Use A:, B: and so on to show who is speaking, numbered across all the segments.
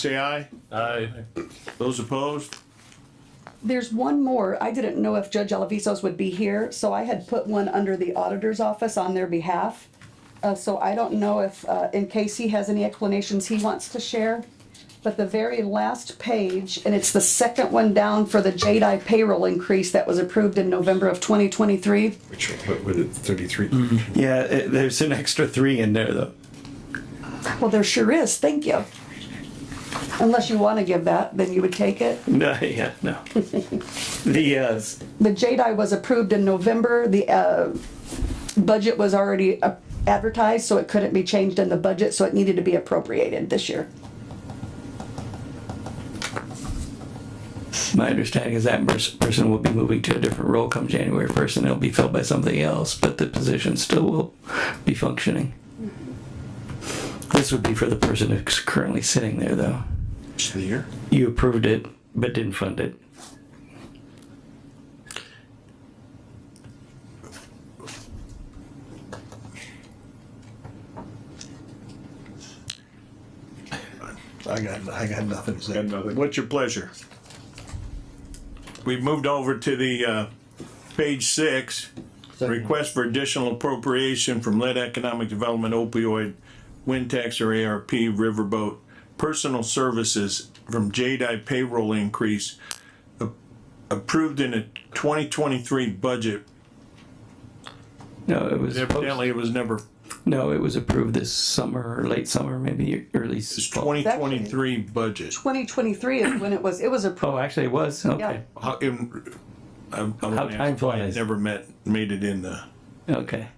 A: say aye.
B: Aye.
A: Those opposed?
C: There's one more. I didn't know if Judge Alavisos would be here, so I had put one under the auditor's office on their behalf. Uh, so I don't know if, uh, in case he has any explanations he wants to share. But the very last page, and it's the second one down for the JDI payroll increase that was approved in November of twenty twenty-three.
D: What was it, 33?
E: Yeah, it, there's an extra three in there though.
C: Well, there sure is. Thank you. Unless you want to give that, then you would take it.
E: No, yeah, no. the uh, s-
C: The JDI was approved in November, the, uh, budget was already uh, advertised, so it couldn't be changed in the budget, so it needed to be appropriated this year.
E: my understanding is that pers- person will be moving to a different role come January first, and it'll be filled by something else, but the position still will be functioning. This would be for the person who's currently sitting there, though.
D: The year?
E: You approved it, but didn't fund it.
D: I got, I got nothing to say.
A: What's your pleasure? We've moved over to the, uh, page six. Request for additional appropriation from lead economic development opioid, wind tax or ARP, riverboat, personal services from JDI payroll increase a- approved in a twenty twenty-three budget.
E: No, it was
A: Evidently, it was never,
E: no, it was approved this summer, late summer, maybe early
A: it's
E: fall.
A: twenty twenty-three budget.
C: Twenty twenty-three is when it was, it was approved.
E: Oh, actually, it was okay.
A: How, in, I'm, I'm
E: How
A: gonna
E: time
A: ask why I
E: flies.
A: never met, made it in the.
E: Okay.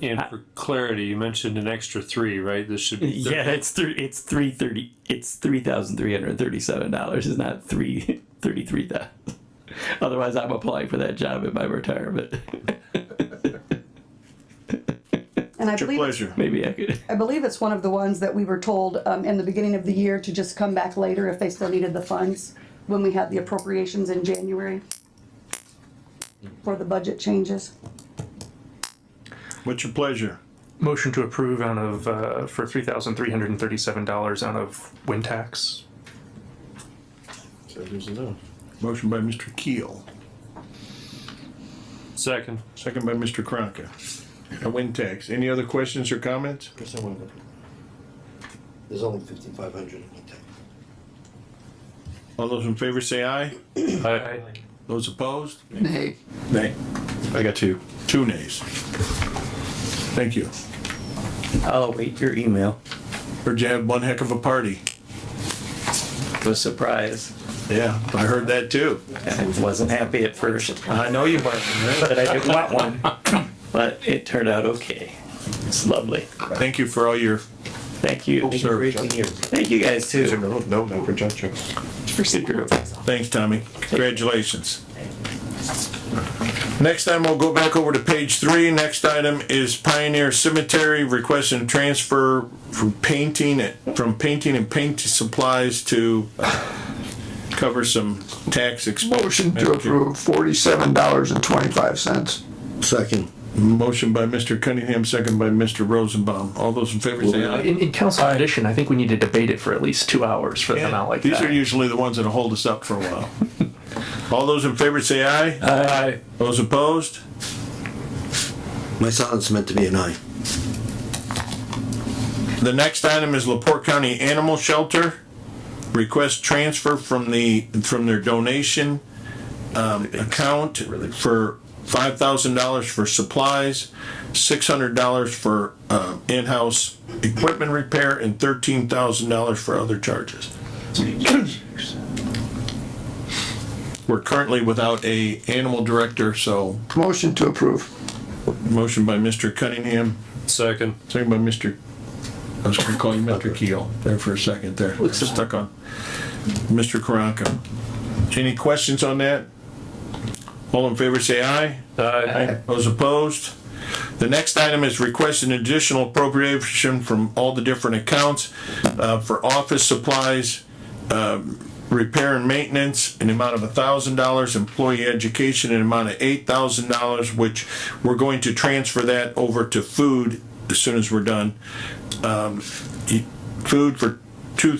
B: And for clarity, you mentioned an extra three, right? This should be.
E: Yeah, it's three. It's three thirty. It's three thousand three hundred thirty-seven dollars. It's not three thirty-three thousand. Otherwise, I'm applying for that job in my retirement.
C: And I
A: It's your
C: believe, it's-
A: pleasure.
E: Maybe I could.
C: I believe it's one of the ones that we were told, um, in the beginning of the year to just come back later if they still needed the funds, when we had the appropriations in January for the budget changes.
A: What's your pleasure?
F: Motion to approve out of, uh, for three thousand three hundred and thirty-seven dollars out of wind tax.
A: Motion by Mr. Keel,
B: Second.
A: second by Mr. Kronka. A win tax. Any other questions or comments?
G: Chris, I wanna go. There's only fifty-five hundred in the tank.
A: All those in favor say aye.
B: Aye.
A: Those opposed?
E: Nay.
A: Nay. I got two. Two nays. Thank you.
E: I'll await your email.
A: Heard you had one heck of a party.
E: It was a surprise.
A: Yeah, I heard that too.
E: I wasn't happy at first. I know you weren't, but I didn't want one. But it turned out okay. It's lovely.
A: Thank you for all your
E: Thank you.
A: service.
E: Thank you guys too.
D: No, no, no, for John Cho.
E: For your
A: Thanks, Tommy. Congratulations. Next time, we'll go back over to page three. Next item is Pioneer Cemetery requesting a transfer from painting, from painting and paint supplies to cover some tax expense.
H: Motion to approve forty-seven dollars and twenty-five cents.
G: Second.
A: Motion by Mr. Cunningham, second by Mr. Rosenbaum. All those in favor say aye.
F: In, in council addition, I think we need to debate it for at least two hours for an amount like
A: These are
F: that.
A: usually the ones that'll hold us up for a while. All those in favor say aye.
F: Uh,
A: Aye. Those opposed?
G: My silence meant to be an aye.
A: The next item is Laporte County Animal Shelter. Request transfer from the, from their donation um, account for five thousand dollars for supplies, six hundred dollars for uh, in-house equipment repair, and thirteen thousand dollars for other charges. We're currently without a animal director, so
H: Motion to approve.
A: motion by Mr. Cunningham,
B: Second.
A: Second by Mr., I was gonna call you Mr. Keel there for a second there. Stuck on. Mr. Karanka. Any questions on that? All in favor, say aye.
B: Aye.
A: Those opposed? The next item is request an additional appropriation from all the different accounts uh, for office supplies, um, repair and maintenance, an amount of $1,000, employee education, an amount of $8,000, which we're going to transfer that over to food as soon as we're done. Um, e- Food for